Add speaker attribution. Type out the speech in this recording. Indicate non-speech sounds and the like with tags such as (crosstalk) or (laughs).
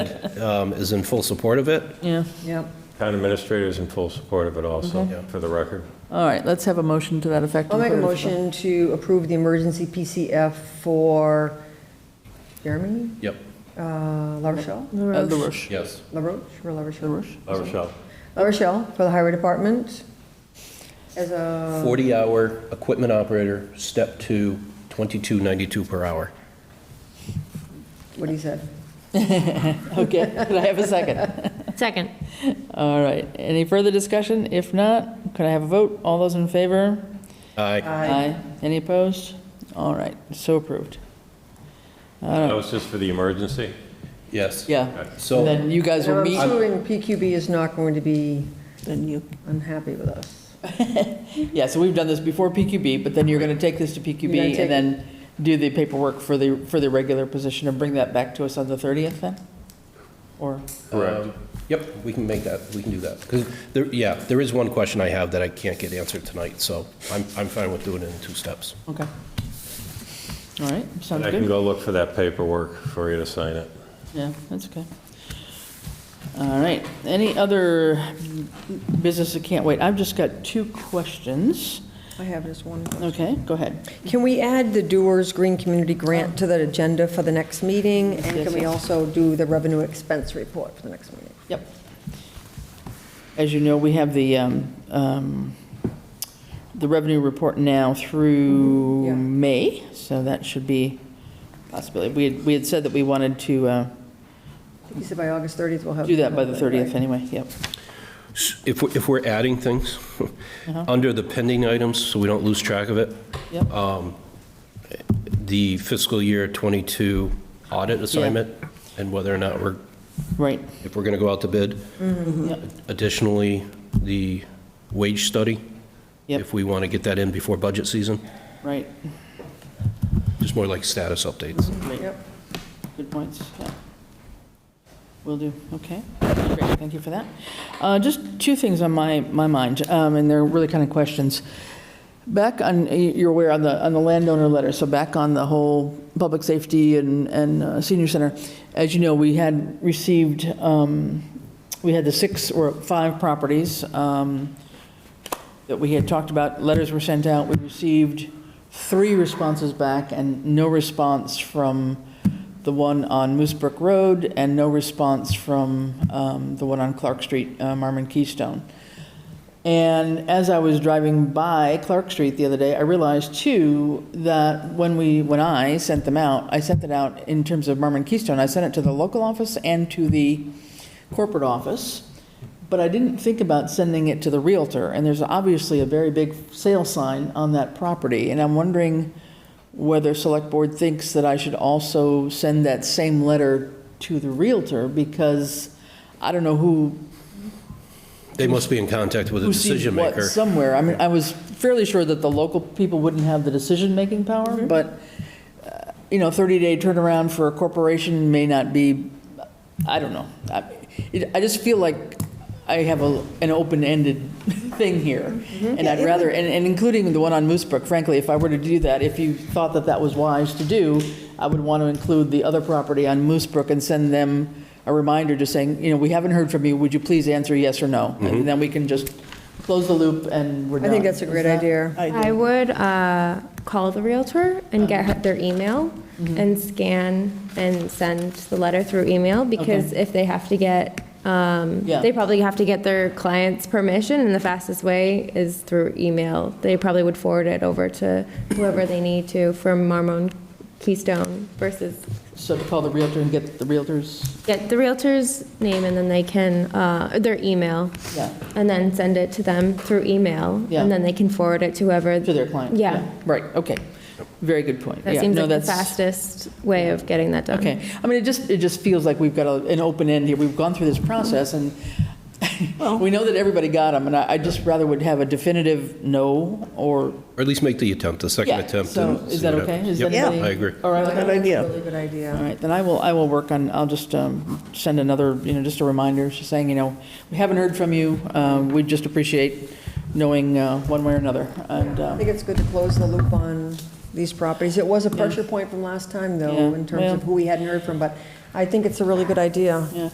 Speaker 1: um, is in full support of it.
Speaker 2: Yeah.
Speaker 3: Yep.
Speaker 4: Town administrator is in full support of it
Speaker 2: Mm-hmm.
Speaker 4: also, for the record.
Speaker 2: All right, let's have a motion to that effect.
Speaker 3: I'll
Speaker 2: and
Speaker 3: make a
Speaker 2: put it to the-
Speaker 3: motion to approve the emergency PCF for Jeremy
Speaker 1: Yep.
Speaker 3: uh, La Rochelle?
Speaker 2: Uh, the Roche.
Speaker 1: Yes.
Speaker 3: La Roche or La Rochelle?
Speaker 2: The Roche.
Speaker 4: La Rochelle.
Speaker 3: La Rochelle for the Highway Department as a,
Speaker 1: 40-hour equipment operator, step two, 2292 per hour.
Speaker 3: what he said.
Speaker 2: Okay, (laughs) could I have a
Speaker 3: (laughs)
Speaker 2: second?
Speaker 5: Second.
Speaker 2: All right, any further discussion? If not, could I have a vote? All those in favor?
Speaker 1: Aye.
Speaker 2: Aye. Any opposed? All right, so approved.
Speaker 4: That was just for the emergency?
Speaker 1: Yes.
Speaker 2: Yeah,
Speaker 1: So.
Speaker 2: and then you guys will
Speaker 3: I'm
Speaker 2: meet,
Speaker 3: assuming PQB is not going to be
Speaker 2: then you,
Speaker 3: unhappy with us.
Speaker 2: yeah, so we've done this before PQB, but then you're going to take this to
Speaker 3: You're gonna
Speaker 2: PQB
Speaker 3: take-
Speaker 2: and then do the paperwork for the, for the regular position and bring that back to us on the 30th then? Or?
Speaker 4: Correct.
Speaker 1: Um, Yep, we can make that, we can do that. Because there, yeah, there is one question I have that I can't get answered tonight, so I'm, I'm fine with doing it in two steps.
Speaker 2: Okay. All right, sounds
Speaker 4: I can
Speaker 2: good.
Speaker 4: go look for that paperwork for you to sign it.
Speaker 2: Yeah, that's okay. All right, any other business that can't wait? I've just got two questions.
Speaker 3: I have just one.
Speaker 2: Okay, go ahead.
Speaker 3: Can we add the Doers Green Community Grant to the agenda for the next meeting? And
Speaker 2: Yes,
Speaker 3: can we
Speaker 2: yes.
Speaker 3: also do the revenue expense report for the next meeting?
Speaker 2: Yep. As you know, we have the, um, um, the revenue report now
Speaker 3: yeah.
Speaker 2: through May, so that should be a possibility. We had, we had said that we wanted to uh,
Speaker 3: You said by August 30th we'll have.
Speaker 2: do that by the 30th anyway, yep.
Speaker 1: If, we- if we're adding
Speaker 2: (laughs)
Speaker 1: things,
Speaker 2: Uh-huh.
Speaker 1: under the pending items, so we don't lose track of it,
Speaker 2: Yep.
Speaker 1: the fiscal year 22 audit assignment and whether or not we're,
Speaker 2: Right,
Speaker 1: if we're going to go out to bid.
Speaker 2: Yep.
Speaker 1: Additionally, the wage study.
Speaker 2: Yep.
Speaker 1: If we want to get that in before budget season,
Speaker 2: right.
Speaker 1: just more like status updates.
Speaker 2: Great.
Speaker 3: Yep.
Speaker 2: Good points, yeah. Will do, okay. Great, thank you for that. Uh, Just two things on my, my mind, um, and they're really kind of questions. Back on, you're aware on the, on the landowner letter, so back on the whole public safety and, and uh, senior center. As you know, we had received, um, we had the six or five properties, um, that we had talked about, letters were sent out, we received three responses back and no response from the one on Moose Brook Road and no response from um, the one on Clark Street, uh, Marmon Keystone. And as I was driving by Clark Street the other day, I realized too that when we, when I sent them out, I sent it out in terms of Marmon Keystone, I sent it to the local office and to the corporate office, but I didn't think about sending it to the Realtor. And there's obviously a very big sale sign on that property, and I'm wondering whether Select Board thinks that I should also send that same letter to the Realtor, because I don't know who
Speaker 1: They must be in contact with a
Speaker 2: who sees
Speaker 1: decision
Speaker 2: what
Speaker 1: maker.
Speaker 2: somewhere. I mean, I was fairly sure that the local people wouldn't have the decision-making power, but, uh, you know, 30-day turnaround for a corporation may not be, I don't know. I it- I just feel like I have a an open-ended (laughs) thing here,
Speaker 3: Mm-hmm.
Speaker 2: and I'd rather, and and including the one on Moose Brook, frankly, if I were to do that, if you thought that that was wise to do, I would want to include the other property on Moose Brook and send them a reminder just saying, you know, we haven't heard from you, would you please answer yes or no? And then we can just close the loop and we're
Speaker 3: I
Speaker 2: done.
Speaker 3: think that's a great
Speaker 2: Is that-
Speaker 3: idea.
Speaker 5: I would uh, call the Realtor and get her- their email
Speaker 2: Mm-hmm.
Speaker 5: and scan and send the letter through email because if they have to get, um,
Speaker 2: Yeah.
Speaker 5: they probably have to get their client's permission and the fastest way is through email. They probably would forward it over to whoever they need to from Marmon Keystone versus
Speaker 2: So to call the Realtor and get the Realtors,
Speaker 5: get the Realtor's name and then they can, uh, their email.
Speaker 2: yeah,
Speaker 5: And then send it to them through email.
Speaker 2: Yeah.
Speaker 5: And then they can forward it to whoever.
Speaker 2: to their client.
Speaker 5: Yeah.
Speaker 2: Right, okay. Very good point.
Speaker 5: That
Speaker 2: Yeah,
Speaker 5: seems
Speaker 2: no,
Speaker 5: like the
Speaker 2: that's-
Speaker 5: fastest way of getting that done.
Speaker 2: Okay, I mean, it just, it just feels like we've got a- an open end here, we've gone through this process, and (laughs) we know that everybody got them, and I I just rather would have a definitive no, or,
Speaker 1: Or at least make the attempt, the second
Speaker 2: yeah,
Speaker 1: attempt.
Speaker 2: so,
Speaker 1: and
Speaker 2: is
Speaker 1: see
Speaker 2: that
Speaker 1: what happens.
Speaker 2: okay? Is
Speaker 1: Yep,
Speaker 2: anybody-
Speaker 1: I agree.
Speaker 2: All right, with that?
Speaker 3: Good idea. Really good idea.
Speaker 2: All right, then I will, I will work on, I'll just um, send another, you know, just a reminder, just saying, you know, we haven't heard from you, um, we'd just appreciate knowing uh, one way or another, and,
Speaker 3: I
Speaker 2: um,
Speaker 3: think it's good to close the loop on these properties. It was a pressure point from last time,
Speaker 2: Yeah,
Speaker 3: though, in terms
Speaker 2: well-
Speaker 3: of who we hadn't heard from, but I think it's a really good idea.
Speaker 2: Yeah.